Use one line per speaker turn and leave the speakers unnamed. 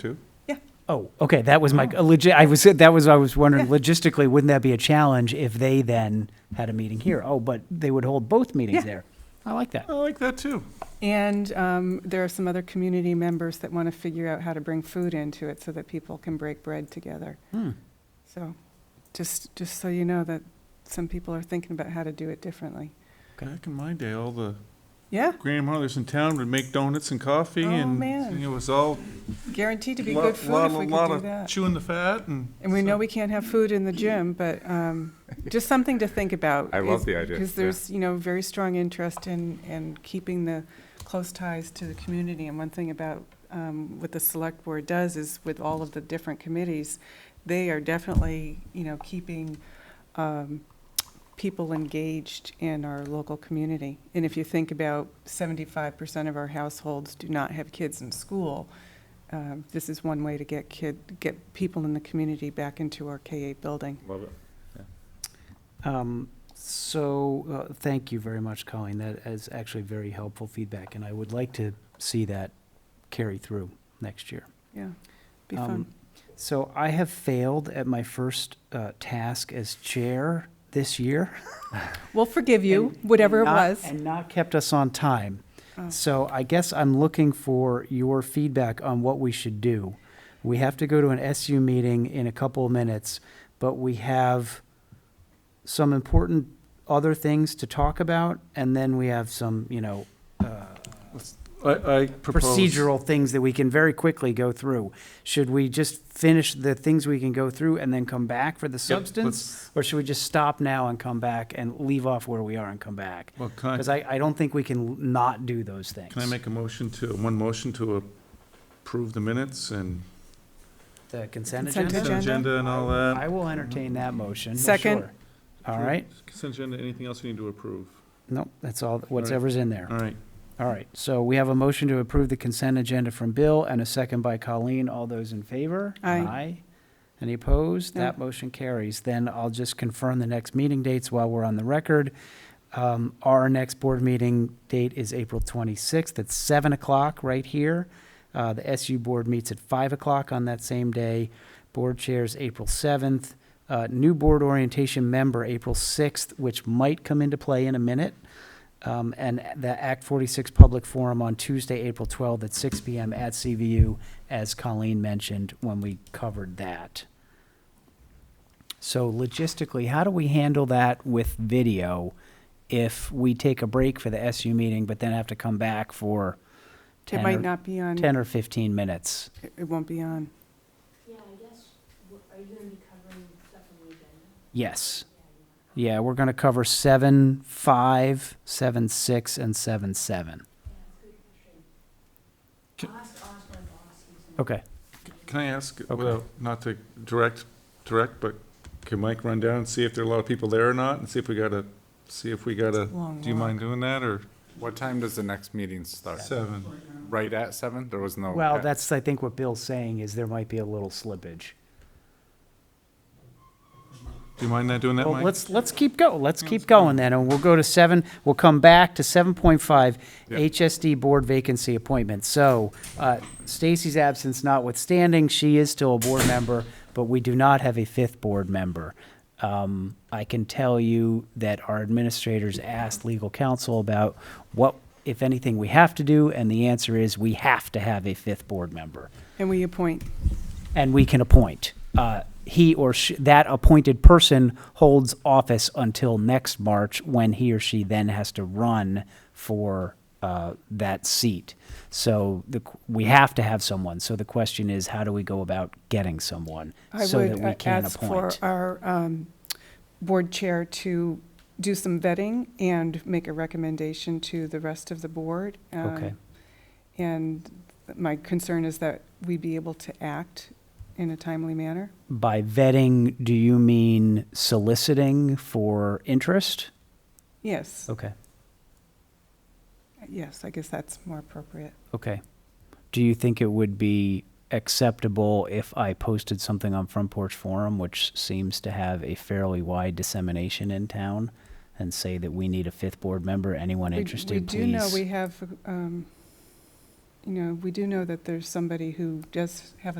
Two?
Yeah,
Oh, okay, that was my, legit, I was, that was, I was wondering logistically, wouldn't that be a challenge if they then had a meeting here? Oh, but they would hold both
Yeah.
meetings there. I like that.
I like that too.
and um, there are some other community members that want to figure out how to bring food into it so that people can break bread together.
Hmm.
So, just, just so you know that some people are thinking about how to do it differently.
Okay.
Back in my day, all the
Yeah,
grandmothers in town would make donuts and coffee,
Oh,
and
man.
it was all
guaranteed to be
lot,
good food
lot,
if we
lot
could do
of
that.
chewing the fat, and
And we
so-
know we can't have food in the gym, but um, just something to think about.
I love the idea,
Because
yeah.
there's, you know, very strong interest in, in keeping the close ties to the community. And one thing about um, what the select board does is with all of the different committees, they are definitely, you know, keeping um, people engaged in our local community. And if you think about 75% of our households do not have kids in school, um, this is one way to get kid, get people in the community back into our K-8 building.
Love it.
Um, So, uh, thank you very much, Colleen. That is actually very helpful feedback, and I would like to see that carry through next year.
Yeah, be
Um,
fun.
So I have failed at my first uh, task as chair this year.
We'll forgive you,
and- and
whatever it
not-
was.
And not kept us on time.
Oh.
So I guess I'm looking for your feedback on what we should do. We have to go to an SU meeting in a couple of minutes, but we have some important other things to talk about, and then we have some, you know, uh,
I, I propose
procedural things that we can very quickly go through. Should we just finish the things we can go through and then come back for the
Yep,
substance?
let's-
Or should we just stop now and come back and leave off where we are and come back?
Well, can I,
Because I, I don't think we can not do those things.
can I make a motion to, one motion to approve the minutes and
The consent
Consent
agenda?
agenda?
agenda and all that?
I will entertain that motion.
Second.
sure. All right,
Consent agenda, anything else we need to approve?
no, that's all, whatever's in there.
All right,
All right, so we have a motion to approve the consent agenda from Bill and a second by Colleen. All those in favor?
Aye.
Any opposed?
No.
That motion carries. Then I'll just confirm the next meeting dates while we're on the record. Um, Our next board meeting date is April 26th at 7 o'clock right here. Uh, The SU board meets at 5 o'clock on that same day. Board chairs, April 7th. Uh, New board orientation member, April 6th, which might come into play in a minute. Um, And the Act 46 Public Forum on Tuesday, April 12th at 6 PM at CVU, as Colleen mentioned when we covered that. So logistically, how do we handle that with video if we take a break for the SU meeting, but then have to come back for
It
10
might
or,
not be on,
10 or 15 minutes?
it it won't be on.
Yeah, I guess, w- are you gonna be covering stuff on the agenda?
Yes. Yeah, we're going to cover 7, 5, 7, 6, and 7, 7.
Can-
Ask, ask my boss, he's in
Okay.
can I ask,
Okay.
without, not to direct, direct, but can Mike run down and see if there are a lot of people there or not, and see if we got a, see if we got a,
Long
do you
walk.
mind doing that, or
What time does the next meeting start?
seven?
Right at seven? There was no.
Well, that's, I think what Bill's saying is there might be a little slippage.
Do you mind not doing that,
Well,
Mike?
let's, let's keep go, let's keep going then, and we'll go to seven, we'll come back to seven point five,
Yeah.
HSD board vacancy appointment. So, uh, Stacy's absence notwithstanding, she is still a board member, but we do not have a fifth board member. Um, I can tell you that our administrators asked legal counsel about what, if anything, we have to do, and the answer is we have to have a fifth board member
And we appoint,
and we can appoint. Uh, He or she, that appointed person holds office until next March, when he or she then has to run for uh, that seat. So the, q- we have to have someone. So the question is, how do we go about getting someone
I
so that
would
we
uh,
can
ask for
appoint?
our um, board chair to do some vetting and make a recommendation to the rest of the board. um,
Okay.
And my concern is that we be able to act in a timely manner.
By vetting, do you mean soliciting for interest?
Yes,
Okay,
yes, I guess that's more appropriate.
okay. Do you think it would be acceptable if I posted something on Front Porch Forum, which seems to have a fairly wide dissemination in town, and say that we need a fifth board member? Anyone
We-
interested,
We do know
please?
we have um, you know, we do know that there's somebody who does have a